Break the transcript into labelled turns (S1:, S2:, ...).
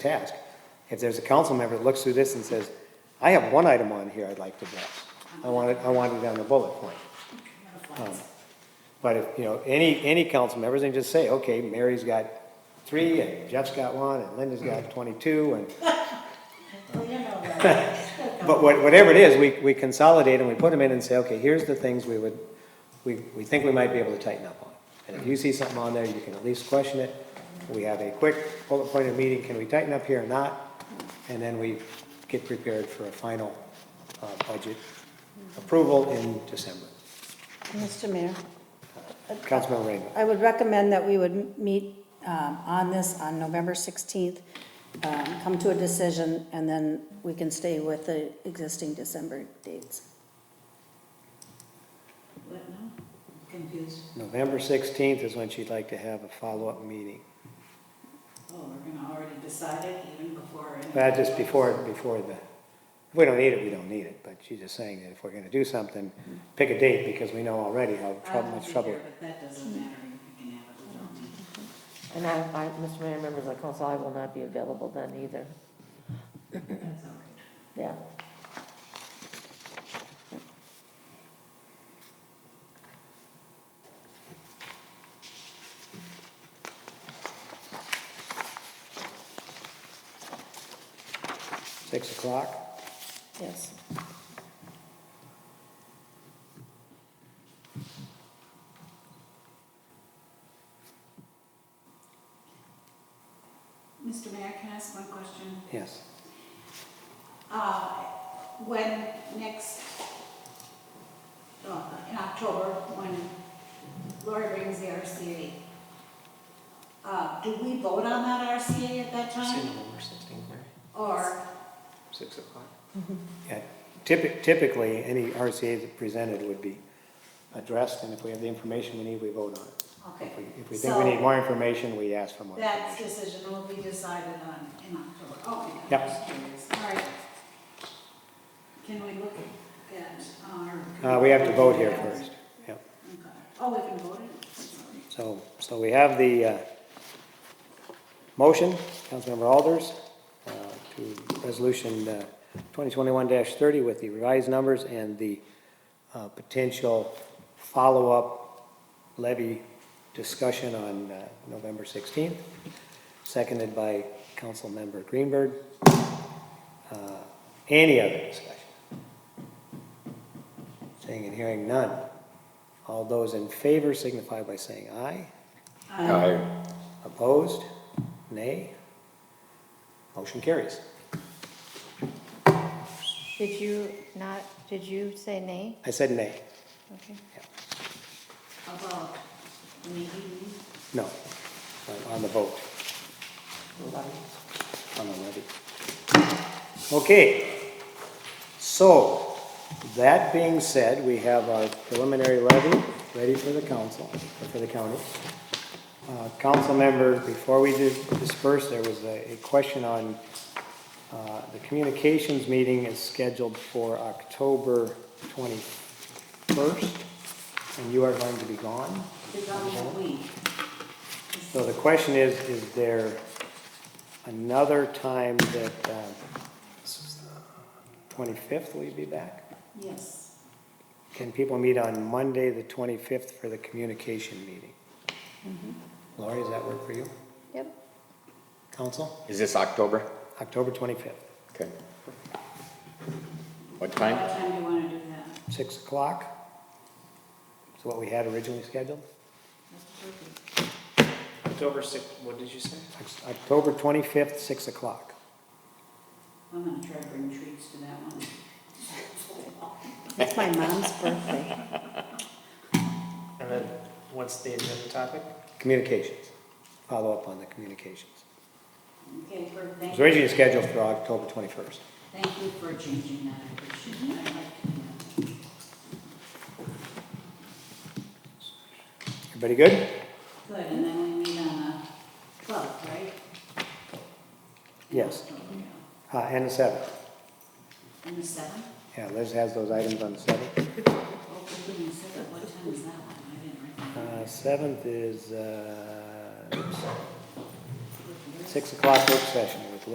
S1: task. If there's a council member that looks through this and says, I have one item on here I'd like to address, I want it, I want it on the bullet point. Um, But if, you know, any, any council members, they just say, okay, Mary's got three, and Jeff's got one, and Linda's got twenty-two, and
S2: Well, you know that.
S1: But what- whatever it is, we, we consolidate and we put them in and say, okay, here's the things we would, we, we think we might be able to tighten up on. And if you see something on there, you can at least question it. We have a quick bullet pointed meeting, can we tighten up here or not? And then we get prepared for a final, uh, budget approval in December.
S3: Mr. Mayor,
S1: Councilmember Rainbow.
S3: I would recommend that we would meet um, on this on November 16th, um, come to a decision, and then we can stay with the existing December dates.
S2: What now? Confused.
S1: November sixteenth is when she'd like to have a follow-up meeting.
S2: Oh, we're gonna already decide it even before. any-
S1: That just before, before the, if we don't need it, we don't need it, but she's just saying that if we're gonna do something, pick a date, because we know already how
S2: I
S1: trouble,
S2: don't
S1: much
S2: think
S1: trouble.
S2: there, But that doesn't matter. You can have it. We don't need it.
S4: And I, I, Mr. Mayor, members of council, I will not be available then either,
S2: That's all right.
S4: yeah.
S1: Six o'clock?
S4: Yes.
S2: Mr. Mayor, can I ask one question?
S1: Yes.
S2: Uh, When next, uh, in October, when Lori brings the RCA, uh, do we vote on that RCA at that time?
S1: November sixteenth, Mary.
S2: Or,
S1: Six o'clock. Yeah, typi- typically, any RCA that presented would be addressed, and if we have the information we need, we vote on it.
S2: okay.
S1: If we- If we think we need more information, we ask for more.
S2: So that
S1: information.
S2: decision will be decided on in October. Okay. I'm
S1: Yep.
S2: just curious. All right. Can we look at our?
S1: Uh, we have to vote here first, yeah.
S2: Okay. Oh, we can vote it? Sorry.
S1: So, so we have the uh, motion, Councilmember Alders, uh, to Resolution uh, 2021-30 with the revised numbers and the uh, potential follow-up levy discussion on uh, November 16th, seconded by Councilmember Greenberg. Uh, Any other discussion? Seeing and hearing none. All those in favor signify by saying aye.
S5: Aye.
S1: Opposed? Nay? Motion carries.
S6: Did you not, did you say nay?
S1: I said nay.
S6: Okay.
S2: About meeting?
S1: No, on- on the vote, on the levy. Okay. So, that being said, we have our preliminary levy ready for the council, or for the county. Uh, Council member, before we dis- disperse, there was a a question on, uh, the communications meeting is scheduled for October 21st, and you are going to be gone?
S2: It's on that week.
S1: So the question is, is there another time that, uh, twenty-fifth will you be back?
S2: Yes.
S1: Can people meet on Monday, the twenty-fifth, for the communication meeting? Lori, does that work for you?
S6: Yep.
S1: Council,
S5: Is this October?
S1: October twenty-fifth,
S5: Okay. What
S2: What
S5: time?
S2: time do you want to do that?
S1: six o'clock? Is what we had originally scheduled?
S2: That's perfect.
S7: October sixth, what did you say?
S1: Oct- October twenty-fifth, six o'clock.
S2: I'm gonna try to bring treats to that one.
S3: It's my mom's birthday.
S7: And then what's the agenda topic?
S1: Communications, follow up on the communications.
S2: Okay, perfect.
S1: It
S2: Thank
S1: was
S2: you.
S1: originally scheduled for October twenty-first.
S2: Thank you for changing that, I appreciate it. I'd like to do that.
S1: Everybody good?
S2: Good, and then we meet on the twelfth, right?
S1: Yes.
S2: Okay.
S1: Uh, and the seventh.
S2: And the seventh?
S1: Yeah, Liz has those items on the seventh.
S2: Oh, we didn't say that. What time is that one? I didn't write that.
S1: Uh, seventh is, uh,
S2: down.
S1: six o'clock work session,